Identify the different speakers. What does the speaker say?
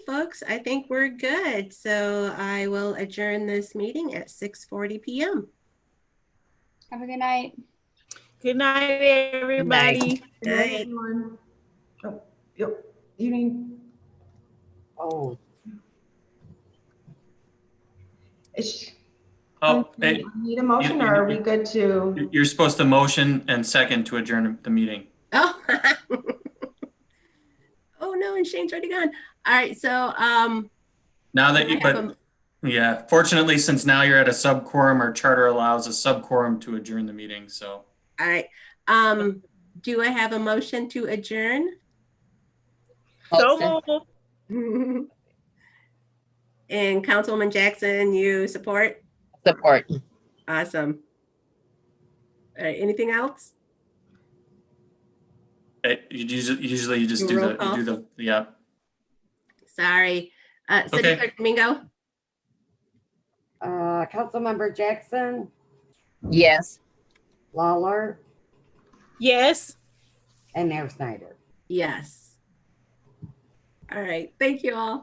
Speaker 1: folks, I think we're good. So I will adjourn this meeting at 6:40 PM.
Speaker 2: Have a good night.
Speaker 3: Good night, everybody.
Speaker 4: Good night,
Speaker 1: Night.
Speaker 4: everyone. Oh, Yep, evening.
Speaker 5: Oh,
Speaker 4: Is-
Speaker 6: Oh, hey,
Speaker 4: Need need a motion or are we good to?
Speaker 6: you're supposed to motion and second to adjourn the meeting.
Speaker 1: Oh. Oh, no, and Shane's already gone. All right, so, um,
Speaker 6: Now
Speaker 1: can
Speaker 6: that you,
Speaker 1: I have
Speaker 6: but,
Speaker 1: a-
Speaker 6: yeah, fortunately, since now you're at a sub quorum or charter allows a sub quorum to adjourn the meeting, so.
Speaker 1: all right, um, do I have a motion to adjourn?
Speaker 3: So moved.
Speaker 1: And Councilwoman Jackson, you support?
Speaker 5: Support.
Speaker 1: Awesome. All right, anything else?
Speaker 6: It, eh, you usually, usually you just
Speaker 1: Do
Speaker 6: do
Speaker 1: roll
Speaker 6: the, you do the, yeah.
Speaker 1: Sorry. Uh, City
Speaker 6: Okay.
Speaker 1: Clerk Domingo?
Speaker 7: Uh, Councilmember Jackson,
Speaker 5: Yes.
Speaker 7: Lawler,
Speaker 3: Yes.
Speaker 7: and Mayor Snyder.
Speaker 1: Yes. All right, thank you all.